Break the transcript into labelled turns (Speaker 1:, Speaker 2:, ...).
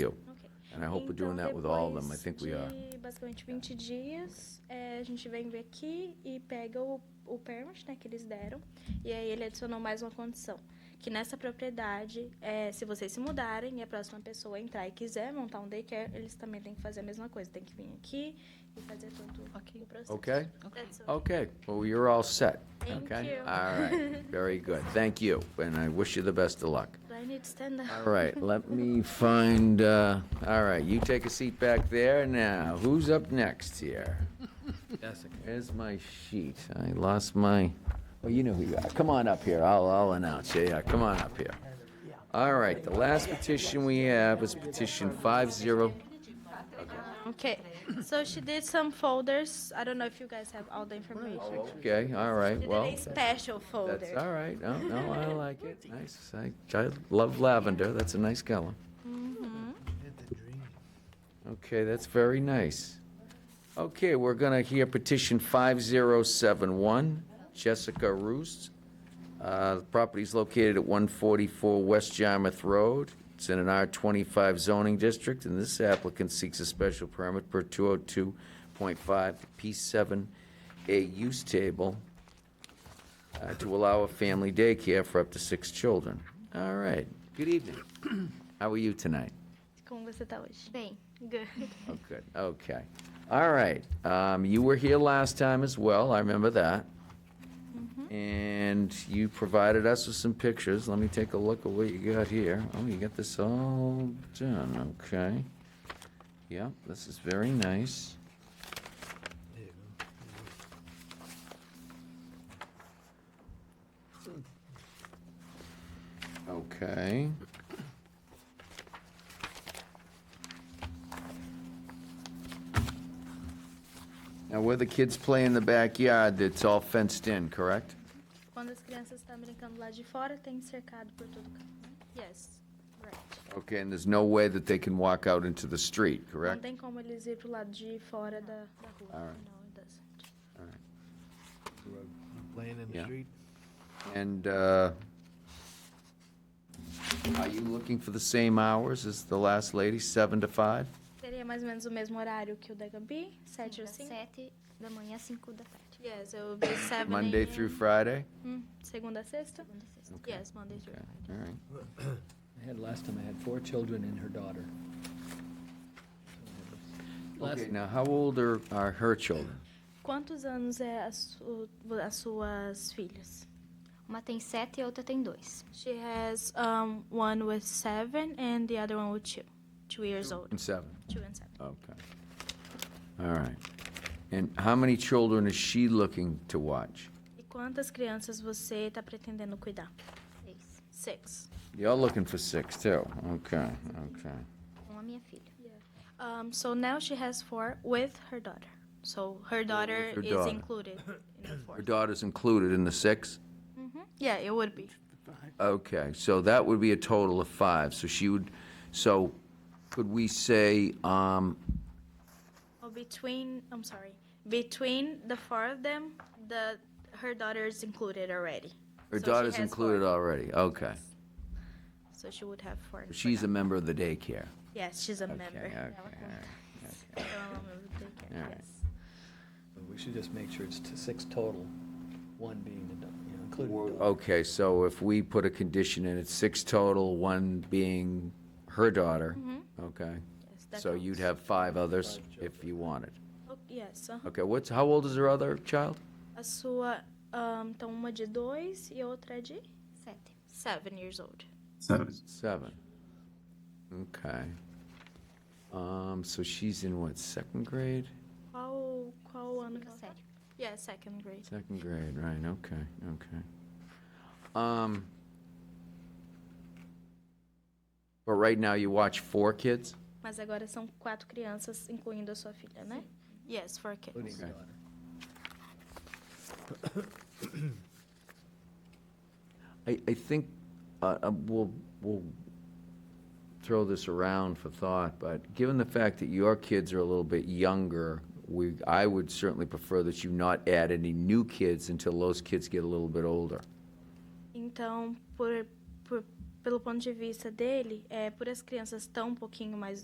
Speaker 1: eu.
Speaker 2: Ok.
Speaker 1: And I hope we're doing
Speaker 2: Então,
Speaker 1: that with all of them. I
Speaker 2: depois
Speaker 1: think we are.
Speaker 2: de basicamente 20 dias, é, a gente vem ver aqui e pega o, o permit né, que eles deram. E aí ele adicionou mais uma condição. Que nessa propriedade, é, se vocês se mudarem e a próxima pessoa entrar e quiser montar um daycare, eles também têm que fazer a mesma coisa. Tem que vir aqui e fazer todo
Speaker 3: Ok.
Speaker 2: o processo.
Speaker 1: Okay?
Speaker 2: That's all.
Speaker 1: Okay, well, you're all set.
Speaker 2: Thank
Speaker 1: okay?
Speaker 2: you.
Speaker 1: All right, very good. Thank you, and I wish you the best of luck.
Speaker 2: I need to stand up.
Speaker 1: All right, let me find, uh, all right, you take a seat back there now. Who's up next here?
Speaker 4: Jessica.
Speaker 1: Where's my sheet? I lost my, oh, you know who you are. Come on up here, I'll, I'll announce you. Yeah, come on up here. All right, the last petition we have is petition 50.
Speaker 2: Okay, so she did some folders. I don't know if you guys have all the information.
Speaker 1: Okay, all right,
Speaker 2: She
Speaker 1: well.
Speaker 2: did a special folder.
Speaker 1: That's all right. No, no, I like it. Nice. I, I love lavender. That's a nice color. Okay, that's very nice. Okay, we're gonna hear petition 5071, Jessica Roost. Uh, the property's located at 144 West Yarmouth Road. It's in an R25 zoning district, and this applicant seeks a special permit per 202.5 P7A use table uh, to allow a family daycare for up to six children. All right. Good evening. How are you tonight?
Speaker 2: Como você tá hoje?
Speaker 5: Bem,
Speaker 2: Good.
Speaker 1: Oh, good. Okay. All right. Um, you were here last time as well. I remember that. And you provided us with some pictures. Let me take a look at what you got here. Oh, you got this all done. Okay. Yep, this is very nice. Okay. Now, where the kids play in the backyard, it's all fenced in, correct?
Speaker 2: Quando as crianças estão brincando lá de fora, tem cercado por todo canto. Yes, right.
Speaker 1: Okay, and there's no way that they can walk out into the street,
Speaker 2: Não
Speaker 1: correct?
Speaker 2: tem como eles ir pro lado de fora da, da rua.
Speaker 1: All right.
Speaker 2: No, it doesn't.
Speaker 4: Laying in
Speaker 1: Yeah.
Speaker 4: the street.
Speaker 1: And, uh, are you looking for the same hours as the last lady, seven to five?
Speaker 2: Seria mais ou menos o mesmo horário que o da Gabi? 7 ou
Speaker 5: das
Speaker 2: 5?
Speaker 5: 7 da manhã às 5 da tarde.
Speaker 2: Yes, it will be 7
Speaker 1: Monday
Speaker 2: a.m.
Speaker 1: through Friday?
Speaker 2: Hum, segunda a sexta?
Speaker 5: segunda a sexta.
Speaker 2: Yes, Monday through
Speaker 1: Okay,
Speaker 2: Friday.
Speaker 1: all right.
Speaker 6: I had, last time I had four children and her daughter. Last-
Speaker 1: Okay, now, how old are, are her children?
Speaker 2: Quantos anos é a su- as suas filhas?
Speaker 5: Uma tem 7 e a outra tem 2.
Speaker 2: She has um, one with seven and the other one with two. Two years old.
Speaker 1: And seven,
Speaker 2: Two and seven.
Speaker 1: okay. All right. And how many children is she looking to watch?
Speaker 2: E quantas crianças você está pretendendo cuidar?
Speaker 5: 6.
Speaker 2: Six.
Speaker 1: You're looking for six, too? Okay, okay.
Speaker 5: Com a é minha filha.
Speaker 2: Um, so now she has four with her daughter. So her daughter
Speaker 1: her
Speaker 2: is
Speaker 1: daughter.
Speaker 2: included in the four.
Speaker 1: Her daughter's included in the six?
Speaker 2: Yeah, it would be.
Speaker 1: Okay, so that would be a total of five, so she would, so could we say, um,
Speaker 2: Or Oh, between, I'm sorry, between the four of them, the her daughter is included already.
Speaker 1: her
Speaker 2: So she
Speaker 1: daughter's
Speaker 2: has
Speaker 1: included
Speaker 2: four.
Speaker 1: already, okay.
Speaker 2: So she would have four. for
Speaker 1: She's a
Speaker 2: now.
Speaker 1: member of the daycare.
Speaker 2: Yes, she's a
Speaker 1: Okay,
Speaker 2: member. Oh,
Speaker 1: okay, all
Speaker 2: Ela conta.
Speaker 1: right.
Speaker 2: Ela é uma member do daycare,
Speaker 1: All right.
Speaker 2: yes.
Speaker 6: We should just make sure it's to six total, one being, the dog, you know, including the dog.
Speaker 1: Okay, so if we put a condition in, it's six total, one being her daughter, okay?
Speaker 2: Yes, Mm-hmm. that
Speaker 1: So you'd
Speaker 2: counts.
Speaker 1: have five others if you wanted.
Speaker 2: Oh, yes, aham.
Speaker 1: Okay, what's, how old is her other child?
Speaker 2: A sua, ahn, então uma de dois e a outra é de
Speaker 5: 7.
Speaker 2: seven years old.
Speaker 1: Seven. Okay. Um, so she's in what, second grade?
Speaker 2: Qual, qual ano que
Speaker 5: Fica
Speaker 2: ela tá?
Speaker 5: sério.
Speaker 2: Yeah, second grade.
Speaker 1: Second grade, right, okay, okay. Um, but right now you watch four kids?
Speaker 2: Mas agora são quatro crianças, incluindo a sua filha, né? Yes, four
Speaker 6: Including
Speaker 2: kids.
Speaker 6: the
Speaker 1: Okay.
Speaker 6: daughter.
Speaker 1: I, I think, uh, uh, we'll, we'll throw this around for thought, but given the fact that your kids are a little bit younger, we, I would certainly prefer that you not add any new kids until those kids get a little bit older.
Speaker 2: Então, por, por, pelo ponto de vista dele, é, por as crianças tão um pouquinho mais